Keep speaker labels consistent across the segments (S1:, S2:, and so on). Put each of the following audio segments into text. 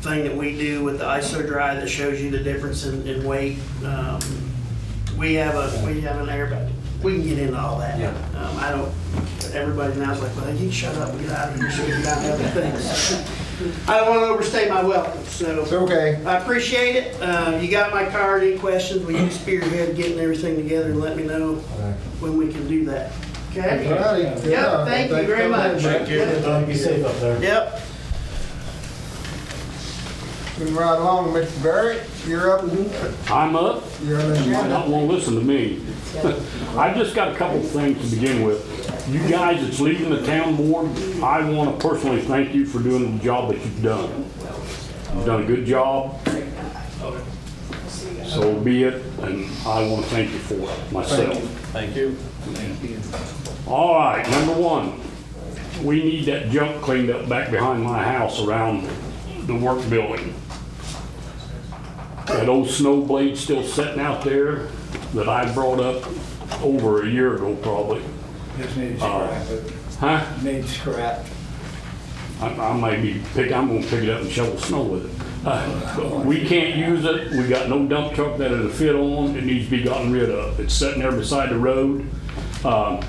S1: thing that we do with the ISO dry that shows you the difference in, in weight. Um, We have a, we have an air, bag. we can get into all that.
S2: Yeah.
S1: Um, I don't, everybody now's like, well, you shut up, get out of here, so we can have other things. I don't want to overstay my welcome, so.
S3: It's okay.
S1: I appreciate it. Uh, You got my card, any questions, will you spearhead getting everything together and let me know when we can do that?
S3: All
S1: Okay?
S3: righty. Yeah,
S1: thank you
S3: thanks
S1: very
S3: for coming in,
S1: much.
S3: Mike.
S1: Thank you.
S4: Be safe up there.
S1: Yep.
S3: Moving right along, Mr. Barrett, you're up.
S5: I'm up.
S3: You're on the
S5: You
S3: agenda.
S5: don't want to listen to me. I've just got a couple things to begin with. You guys that's leaving the town board, I want to personally thank you for doing the job that you've done. You've done a good job. So be it, and I want to thank you for it myself.
S2: Thank you.
S5: All right, number one, we need that junk cleaned up back behind my house around the work building. That old snow blade still sitting out there that I brought up over a year ago probably.
S4: Just need
S5: Uh,
S4: scrap, it.
S5: Huh?
S4: need scrap.
S5: I, I may be pick, I'm gonna pick it up and shovel snow with it. Uh, We can't use it, we got no dump truck that it'll fit on, it needs to be gotten rid of. It's sitting there beside the road. Um,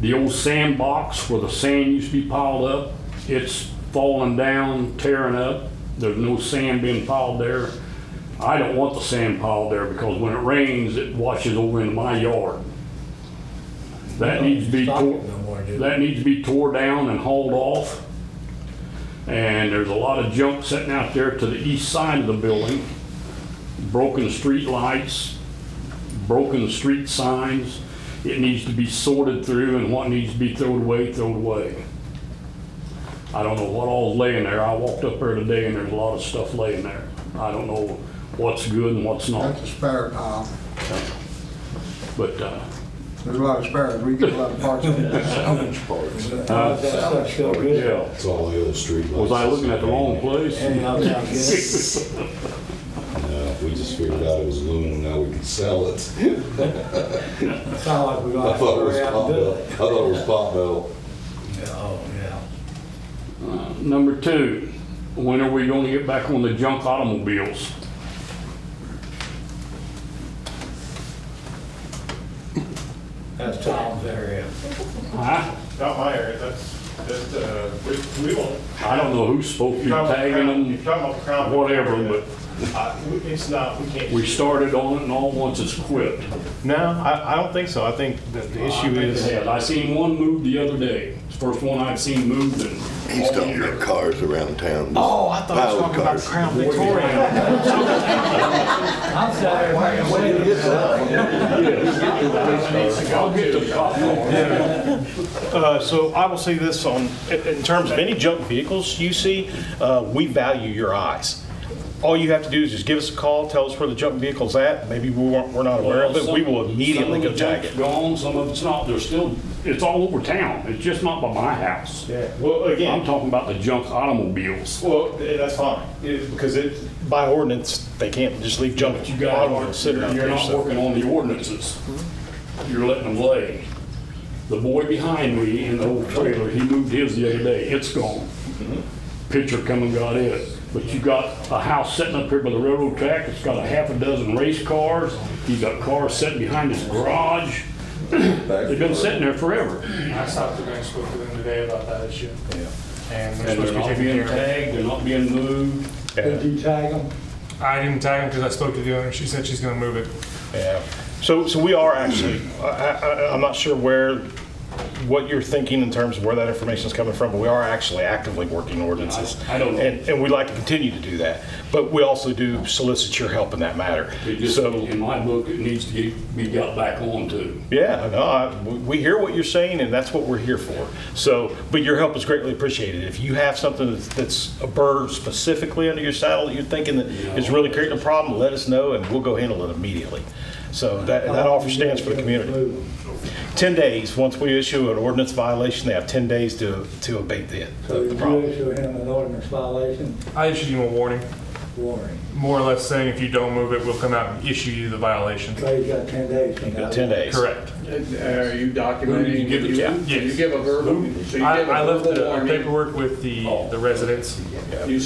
S5: The old sandbox where the sand used to be piled up, it's falling down, tearing up. There's no sand being piled there. I don't want the sand piled there because when it rains, it washes over into my yard. That needs to be
S4: Stock
S5: tore,
S4: it no more, dude.
S5: that needs to be tore down and hauled off. And there's a lot of junk sitting out there to the east side of the building. Broken street lights, broken street signs. It needs to be sorted through and what needs to be thrown away, thrown away. I don't know what all's laying there. I walked up there today and there's a lot of stuff laying there. I don't know what's good and what's not,
S3: That's a spare pile.
S5: but, uh,
S3: There's a lot of spares. We get a lot of parts. from it.
S4: That stuff's so good.
S5: yeah.
S6: It's all the old street lights.
S5: Was I looking at the wrong place?
S4: Anyhow, it's
S6: No, uh, we just figured out it was aluminum, now we can sell it.
S4: not good. It's not like we're
S6: I
S4: gonna have to
S6: thought it was
S4: hurry out
S6: pot
S4: and do
S6: metal,
S4: it.
S6: I thought it was pot metal.
S4: Yeah, Oh, yeah.
S5: Number two, when are we gonna get back on the junk automobiles?
S4: That's Tom's area.
S5: Huh?
S7: Not my area, that's, that's, uh, we, we don't.
S5: I don't know who's supposed to be tagging
S7: You're
S5: them,
S7: talking about Crown.
S5: whatever, but
S7: Uh, we- It's not, we can't.
S5: we started on it and all once it's quit.
S7: No, I, I don't think so. I think that the issue is,
S5: I seen one move the other day. It's the first one I've seen moved and.
S8: He's talking about cars around town.
S7: oh, I thought you were talking about
S8: Piled cars.
S7: Crown Victoria.
S4: I'm sorry, wait, wait, wait.
S5: I'll get the copy.
S7: Uh, so I will say this on, in, in terms of any junk vehicles you see, uh, we value your eyes. All you have to do is just give us a call, tell us where the junk vehicle's at. Maybe we weren't, we're not aware of it. We will immediately go tag it.
S5: Some of the junk's Gone, some of it's not, there's still, it's all over town, it's just not by my house.
S7: Well,
S5: I'm talking about the junk automobiles.
S7: Well, th- that's fine, It- because it, by ordinance, they can't just leave junk
S5: You
S7: automobiles
S5: guys
S7: sitting
S5: aren't,
S7: out
S5: you're
S7: there.
S5: not
S7: so-
S5: working on the ordinances. You're letting them lay. The boy behind me in the old trailer, he moved his the other day, it's gone. Pitcher come and got it. But you got a house sitting up here by the railroad track, it's got a half a dozen race cars, he's got cars sitting behind his garage. They've been sitting there forever.
S9: I stopped the bank, spoke to them today about that issue. And they're
S5: And
S9: supposed
S5: they're
S9: to be
S5: not
S9: taking
S5: being
S9: care of it.
S5: tagged, they're not being moved.
S4: Did you tag them?
S9: I didn't tag him because I spoke to the owner. She said she's gonna move it.
S7: Yeah. So, so we are actually, I, I, I'm not sure where, what you're thinking in terms of where that information is coming from, but we are actually actively working ordinances.
S5: I- I don't know.
S7: And, and we'd like to continue to do that, but we also do solicit your help in that matter.
S5: It just,
S7: So,
S5: in my book, it needs to get- be got back on to.
S7: yeah, no, I, we- we hear what you're saying, and that's what we're here for. So, but your help is greatly appreciated. If you have something that's, that's a bird specifically under your saddle that you're thinking that is really creating a problem, let us know, and we'll go handle it immediately. So that, that offer stands for the community. 10 days, once we issue an ordinance violation, they have 10 days to, to abate the,
S4: So you
S7: the problem.
S4: issue him an ordinance violation
S9: I issued him a warning,
S4: warning.
S9: more or less saying if you don't move it, we'll come out and issue you the violation.
S4: So you got 10 days from now.
S7: 10 days.
S9: Correct.
S10: Are you
S5: Who did you
S10: documenting?
S5: give it to?
S10: You give a verbal, so you
S9: I,
S10: give
S9: I
S10: a
S9: left
S10: verbal
S9: the
S10: warning. Oh.
S9: paperwork with the, the residents.
S10: You